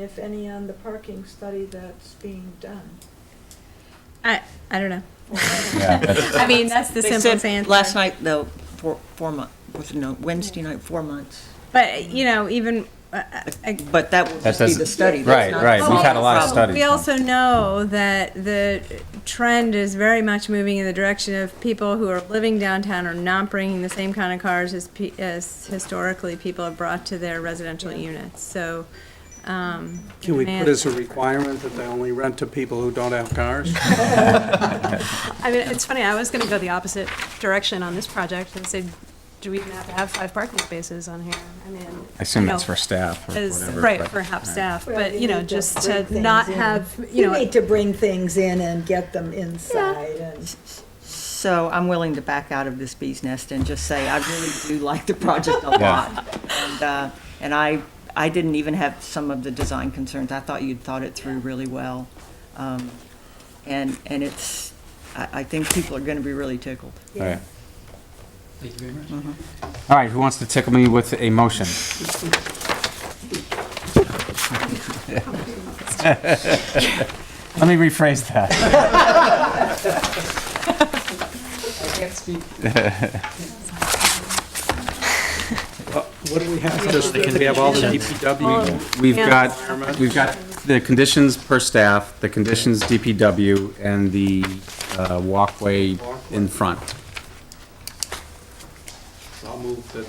if any, on the parking study that's being done. I, I don't know. Yeah, that's- I mean, that's the They simplest said answer. Last night, though, four, four months, no, Wednesday night, four months. But, you know, even, uh, I- But that will That just be doesn't- the study. right, that's not- right, we've had a lot of Well, studies. We also know that the trend is very much moving in the direction of people who are living downtown are not bringing the same kind of cars as, pe- as historically people have brought to their residential units, so, um. Can we demand- put as a requirement that they only rent to people who don't have cars? I mean, it's funny, I was gonna go the opposite direction on this project and say, do we even have to have five parking spaces on here? I mean. I assume you that's know, for staff or as- whatever. Right, but- for half right. staff, Well, but, you you know, need to just bring to things not in. have, you You know. need to bring things in and get them inside and. So I'm willing to back out of this bee's nest and just say, I really do like the project a Yeah. lot. And, uh, And I, I didn't even have some of the design concerns. I thought you'd thought it through really well. Um, And, and it's, I, I think people are going to be really tickled. Right. All right, who wants to tickle me with a motion? Let me rephrase that. What do we have? Just, we have all the DPW. We've got, we've got the conditions per staff, the conditions DPW, and the uh, walkway in front. I'll move that.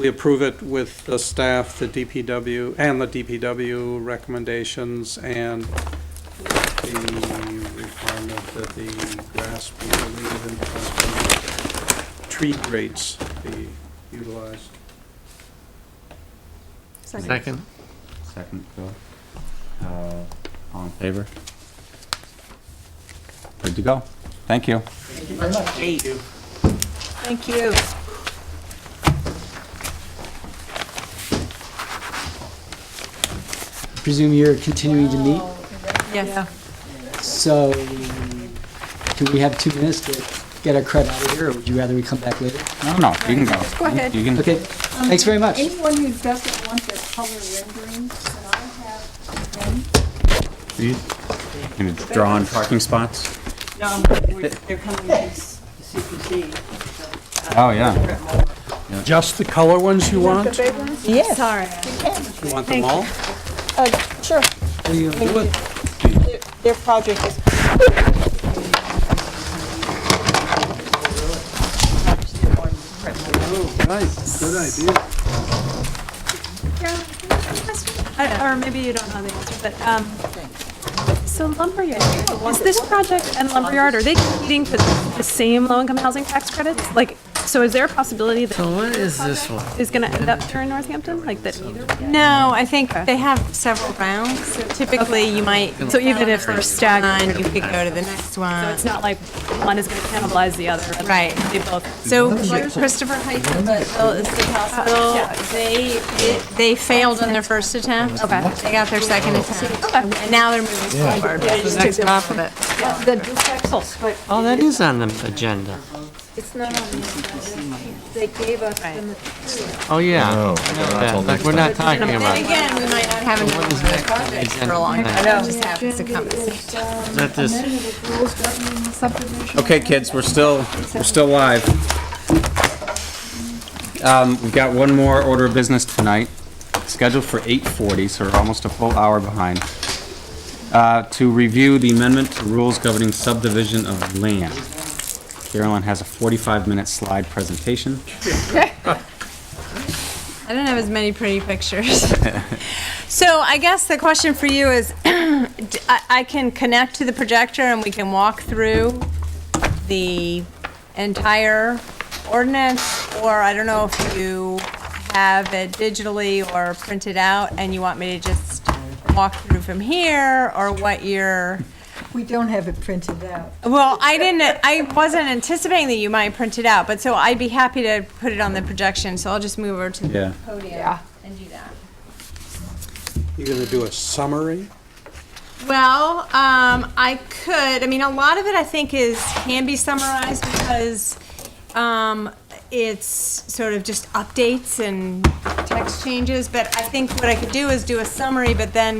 We approve it with the staff, the DPW, and the DPW recommendations, and the requirement that the grass be deleted and possibly tree grates be utilized. Second. Second, Bill. Uh, All in favor? Good to go. Thank you. Eight. Thank you. Presume you're continuing to meet, Yes, so do we have two minutes to get our crud out of here, or would you rather we come back later? No, no, you can go. Go ahead. You can- Okay, thanks very much. Anyone who doesn't want their color renderings, and I have them, You can draw on parking spots? No, we're- they're coming to s- CPC. Oh, yeah. Just the color ones you want? big ones? Yes. sorry. You want them all? Uh, sure, What are you gonna do with their, their project is Nice, good idea. I- Or maybe you don't know the answer, but, um, so lumberyard, is this project and lumberyard, are they competing for the same low-income housing tax credits? Like, so is there a possibility that? So what is this one? Is gonna end up here in Northampton, like that either? No, I think they have several rounds, so typically you might. So even if they're they're staggered, You could go to the next So one. it's not like one is going to cannibalize the other. and Right. They both. So Christopher Heights Hospital is the hospital, they, it- they failed on their first attempt. Okay. They got their second attempt. Okay. And now they're moving forward. They just took it off of it. The duplexes, but Oh, that is on the agenda. it's not on the inside. They gave us the material. Oh, yeah. No, Like, we're not talking about, And again, we might not have another project for a long time. It just happens to come. is that this? rules governing the um, subdivision. Okay, kids, we're still, we're still live. Um, we've got one more order of business tonight, scheduled for 8:40, so we're almost a full hour behind. Uh, to review the amendment to rules governing subdivision of land. Carolyn has a 45-minute slide presentation. I don't have as many pretty pictures. so I guess the question for you is, d- I, I can connect to the projector and we can walk through the entire ordinance, or I don't know if you have it digitally or printed out and you want me to just walk through from here, or what your, We don't have it printed out. well, I didn't, I wasn't anticipating that you might print it out, but so I'd be happy to put it on the projection, so I'll just move over to the Yeah. podium and do that. You're gonna do a summary? Well, um, I could. I mean, a lot of it I think is can be summarized because um, it's sort of just updates and text tax changes, but I think what I could do is do a summary, but then